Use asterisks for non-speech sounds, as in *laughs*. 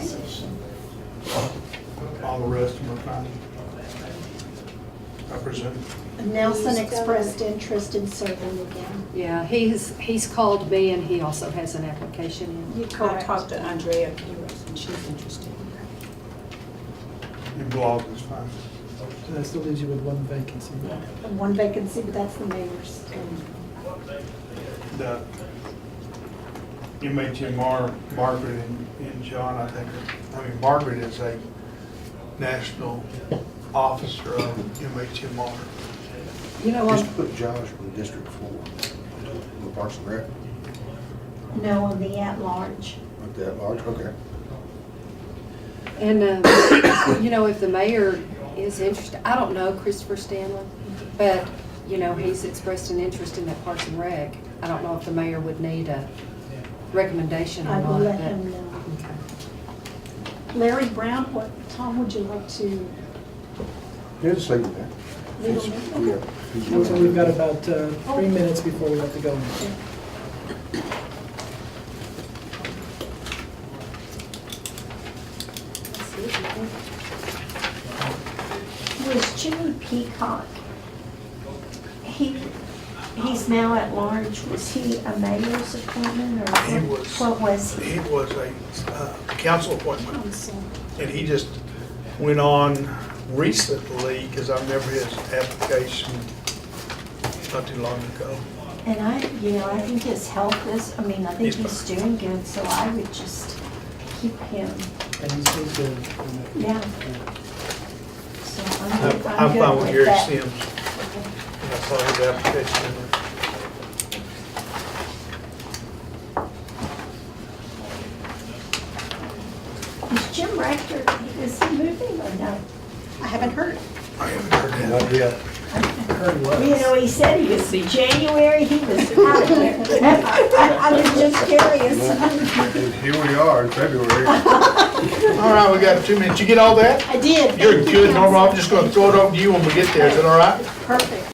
six. All the rest of them are fine. I presume. Nelson expressed interest in serving again. Yeah, he's, he's called me and he also has an application in. You I talked to uh, Andrea Pires, and she's interested. Your blog is fine. So that still leaves you with one vacancy. And one vacancy, but that's the mayor's. The MHMR, Margaret and, and John, I think, are- I mean, Margaret is a national officer of MHMR. You know, I'm- Just put Josh from District Four, the Parks and Rec, No, on the at-large. like that large, okay. and, uh, you know, if the mayor is interested, I don't know Christopher Stanley, but, you know, he's expressed an interest in that Parks and Rec. I don't know if the mayor would need a recommendation I or not. will let but- him know. Okay. Larry Brown, what, Tom, would you like to? Yeah, just leave it there. We don't It's- know. yeah, he's- Council, we've got about uh, three minutes before we have to go. Was Jimmy Peacock, he, he's now at large, was he a mayor's appointment or He what- was- what was he? He was a uh, council appointment. Council. And he just went on recently, because I remember his application not too long ago. And I, you know, I think his health is, I mean, I think He's he's doing good, so I would just keep him, And he's still good. yeah. So I'm I'm good- I'm I'm fine good with with Gary that. Sims. And I saw his application. Is Jim Rector, is he moving or no? I haven't heard. I haven't heard that. Not yet. Heard what? You know, he said he was, January, he was out of there. *laughs* I I was just curious. And Here we are in February. All right, we got two minutes. You get all that? I did. You're Thank you, good, Norma. I'm Council. just gonna throw it over to you when we get there. Is that all right? Perfect.